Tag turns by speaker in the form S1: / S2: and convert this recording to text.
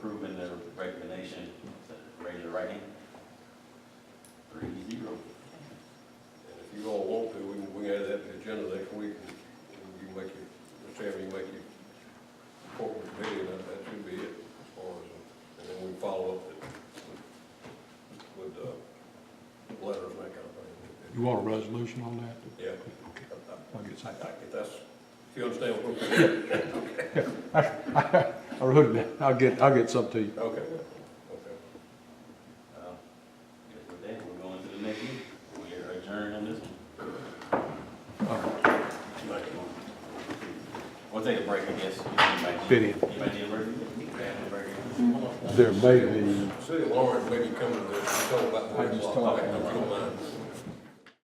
S1: Recommendation, raise your right hand. Three zero.
S2: And if you all want to, we can, we can add that to the agenda next week, and you can make your, Mr. Chairman, you make your corporate committee, and that, that should be it, as far as, uh, and then we follow up with- with, uh, letters and that kind of
S3: You
S2: thing.
S3: want a resolution on that?
S2: Yeah,
S3: Okay,
S2: I- I-
S3: I'll get
S2: I,
S3: some.
S2: I, if that's, if you understand what we're saying,
S3: I wrote it down. I'll get, I'll get some to you.
S2: okay, okay.
S1: Uh, Guess with that, we're going to the next meeting. We are adjourned on this one.
S3: All right.
S1: We'll take a break, I guess. Anybody-
S3: Fit in.
S1: Anybody need a break? Grab a break.
S3: There may be,
S2: City of Lawrence, maybe come to the, tell about.
S3: I just told
S2: If you don't mind.